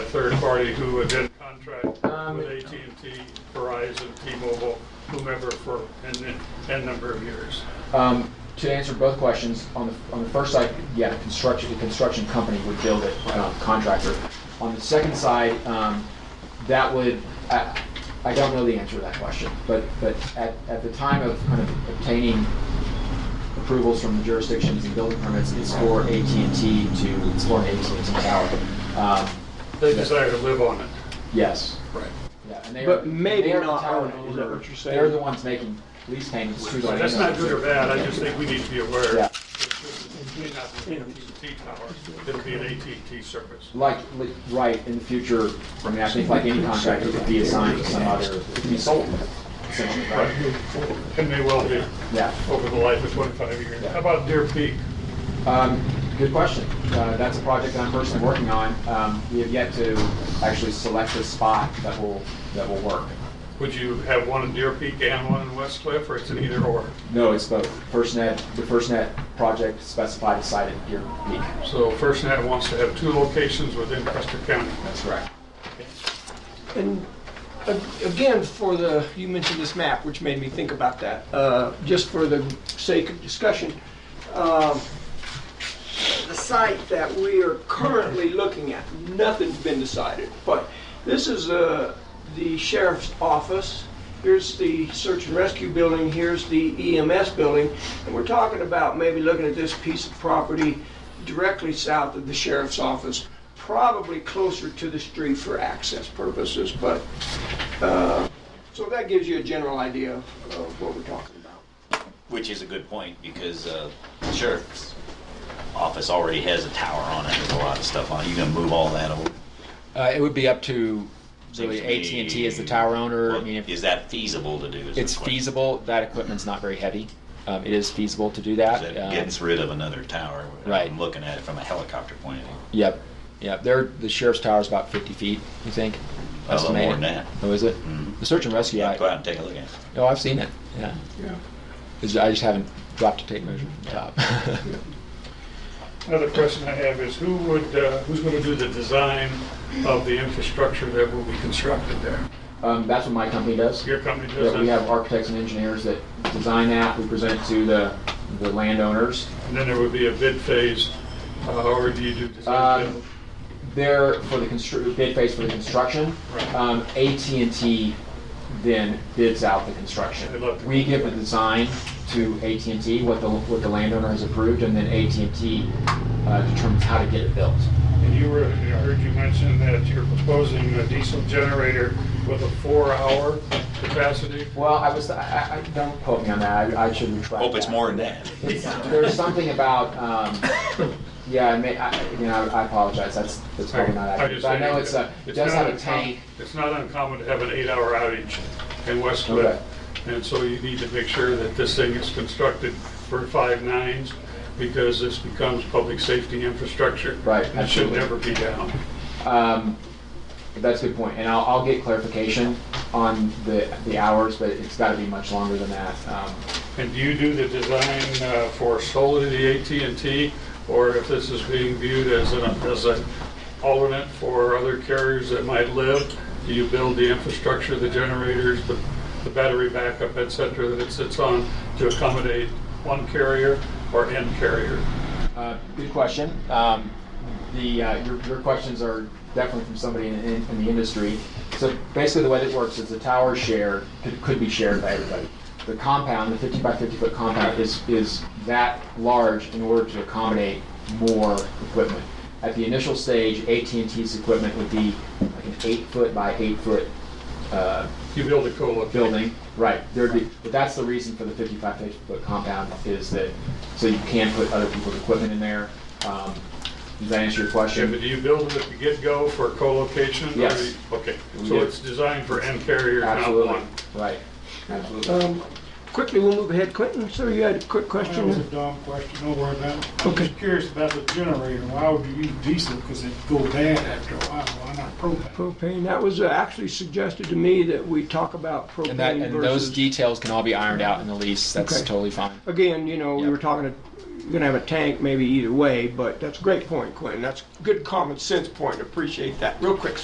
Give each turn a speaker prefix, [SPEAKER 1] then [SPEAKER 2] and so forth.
[SPEAKER 1] third party who would then contract with
[SPEAKER 2] Um,
[SPEAKER 1] AT&T, Verizon, T-Mobile, whomever for an n number of years.
[SPEAKER 2] Um, to answer both questions, on the, on the first side, yeah, construction, the construction company would build it, um, contractor. On the second side, um, that would, I, I don't know the answer to that question, but, but at, at the time of kind of obtaining approvals from the jurisdictions and building permits, it's for AT&T to, it's for an AT&T tower. Um,
[SPEAKER 1] They desire to live on it.
[SPEAKER 2] Yes.
[SPEAKER 1] Right.
[SPEAKER 2] Yeah, and they
[SPEAKER 3] But
[SPEAKER 2] are-
[SPEAKER 3] maybe
[SPEAKER 2] they are the
[SPEAKER 3] not
[SPEAKER 2] tower
[SPEAKER 3] own it, is that
[SPEAKER 2] owner.
[SPEAKER 3] what you're saying?
[SPEAKER 2] They're the ones making lease payments to the
[SPEAKER 1] So That's not good or bad, I just think we need to be aware.
[SPEAKER 2] Yeah.
[SPEAKER 1] that It may not be an AT&T tower, it'll be an AT&T service.
[SPEAKER 2] Like, li- right, in the future, I mean, I think like any contract, it could be assigned to some other, it could be sold, essentially, right?
[SPEAKER 1] And may well be
[SPEAKER 2] Yeah.
[SPEAKER 1] over the life of 25 years. How about Deer Peak?
[SPEAKER 2] Um, Good question. Uh, That's a project that I'm personally working on. Um, We have yet to actually select a spot that will, that will work.
[SPEAKER 1] Would you have one in Deer Peak and one in West Cliff, or it's an either or?
[SPEAKER 2] No, it's both. FirstNet, the FirstNet project specified a site at Deer Peak.
[SPEAKER 1] So FirstNet wants to have two locations within Custer County.
[SPEAKER 2] That's correct.
[SPEAKER 3] And a- again, for the, you mentioned this map, which made me think about that, Uh, just for the sake of discussion. um, The site that we are currently looking at, nothing's been decided, but this is uh, the sheriff's office. Here's the search and rescue building, here's the EMS building, and we're talking about maybe looking at this piece of property directly south of the sheriff's office, probably closer to the street for access purposes, but, uh, so that gives you a general idea of of what we're talking about.
[SPEAKER 4] Which is a good point because uh, the sheriff's office already has a tower on it. There's a lot of stuff on it. You gonna move all that over?
[SPEAKER 5] Uh, it would be up to
[SPEAKER 4] Seems
[SPEAKER 5] really
[SPEAKER 4] to
[SPEAKER 5] AT and T
[SPEAKER 4] me-
[SPEAKER 5] as the tower owner. I
[SPEAKER 4] Well,
[SPEAKER 5] mean, if
[SPEAKER 4] is that feasible to do? is the
[SPEAKER 5] it's
[SPEAKER 4] question.
[SPEAKER 5] feasible, that equipment's not very heavy. Um, it is feasible to do
[SPEAKER 4] 'Cause
[SPEAKER 5] that.
[SPEAKER 4] That
[SPEAKER 5] Um,
[SPEAKER 4] gets rid of another tower.
[SPEAKER 5] Right.
[SPEAKER 4] I'm looking at it from a helicopter point of view.
[SPEAKER 5] Yep, yep. There, the sheriff's tower is about 50 feet. You think?
[SPEAKER 4] A little more than that.
[SPEAKER 5] Oh, is it?
[SPEAKER 4] Mhm.
[SPEAKER 5] The search and rescue.
[SPEAKER 4] Yeah,
[SPEAKER 5] I,
[SPEAKER 4] go out and take a look at it.
[SPEAKER 5] oh, I've seen it. Yeah. It's- I just haven't dropped a tape measure from the top.
[SPEAKER 1] Another question I have is who would, uh, who's going to do the design of the infrastructure that will be constructed there?
[SPEAKER 2] Um, That's what my company does.
[SPEAKER 1] Your company does
[SPEAKER 2] Yeah, we
[SPEAKER 1] that?
[SPEAKER 2] have architects and engineers that design that, we present it to the, the landowners.
[SPEAKER 1] And then there would be a bid phase, uh, or do you do design?
[SPEAKER 2] Um,
[SPEAKER 1] build?
[SPEAKER 2] They're for the constru, bid phase for the construction.
[SPEAKER 1] Right.
[SPEAKER 2] Um, AT&T then bids out the
[SPEAKER 1] They
[SPEAKER 2] construction.
[SPEAKER 1] love to-
[SPEAKER 2] We give the design to AT&T, what the, what the landowner has approved, and then AT&T uh, determines how to get it built.
[SPEAKER 1] And you were, I heard you mention that you're proposing a diesel generator with a four-hour capacity.
[SPEAKER 2] Well, I was, I, I- I, don't quote me on that, I I should retract
[SPEAKER 4] Hope it's
[SPEAKER 2] that.
[SPEAKER 4] more than that.
[SPEAKER 2] There's something about, um, yeah, I may, I, you know, I apologize, that's, that's probably not
[SPEAKER 1] I'm
[SPEAKER 2] accurate.
[SPEAKER 1] just
[SPEAKER 2] But I
[SPEAKER 1] saying
[SPEAKER 2] know it's a,
[SPEAKER 1] that
[SPEAKER 2] it does
[SPEAKER 1] not
[SPEAKER 2] have a
[SPEAKER 1] uncommon-
[SPEAKER 2] tank.
[SPEAKER 1] It's not uncommon to have an eight-hour outage in West Cliff. And so you need to make sure that this thing is constructed for five nines because this becomes public safety infrastructure.
[SPEAKER 2] Right,
[SPEAKER 1] And it should
[SPEAKER 2] absolutely.
[SPEAKER 1] never be down.
[SPEAKER 2] Um, that's a good point, and I'll, I'll get clarification on the, the hours, but it's gotta be much longer than that. Um,
[SPEAKER 1] And do you do the design uh, for solely the AT&T? Or if this is being viewed as an, as an alternate for other carriers that might live, do you build the infrastructure, the generators, the, the battery backup, et cetera, that it sits on to accommodate one carrier or N carrier?
[SPEAKER 2] Uh, Good question. Um, The, uh, your, your questions are definitely from somebody in, in in the industry. So basically, the way that works is the tower share could, could be shared by everybody. The compound, the 50 by 50 foot compound is, is that large in order to accommodate more equipment. At the initial stage, AT&T's equipment would be like an eight foot by eight foot uh,
[SPEAKER 1] You build a co
[SPEAKER 2] building, right, there'd be, but that's the reason for the 55 50 foot compound is that, so you can put other people's equipment in there. Um, Does that answer your
[SPEAKER 1] Yeah, but
[SPEAKER 2] question?
[SPEAKER 1] do you build it at the get-go for co-location? or
[SPEAKER 2] Yes.
[SPEAKER 1] do you- Okay,
[SPEAKER 2] We
[SPEAKER 1] so
[SPEAKER 2] do.
[SPEAKER 1] it's designed for N carrier, not
[SPEAKER 2] Absolutely,
[SPEAKER 1] one?
[SPEAKER 2] right, absolutely.
[SPEAKER 3] Um, Quickly, we'll move ahead. Clinton, sir, you had a quick
[SPEAKER 6] That was a
[SPEAKER 3] question?
[SPEAKER 6] dumb question, don't worry about it. I'm
[SPEAKER 3] Okay.
[SPEAKER 6] just curious about the generator, why would you use diesel, because it go bad after a while, why not propane?
[SPEAKER 3] Propane, that was uh, actually suggested to me that we talk about
[SPEAKER 5] and that,
[SPEAKER 3] propane
[SPEAKER 5] and those
[SPEAKER 3] versus,
[SPEAKER 5] details can all be ironed out in the lease. That's
[SPEAKER 3] Okay.
[SPEAKER 5] totally fine.
[SPEAKER 3] again, you know, we were talking, you're gonna have a tank maybe either way, but that's a great point, Quentin. That's a good common sense point, appreciate that. Real quick,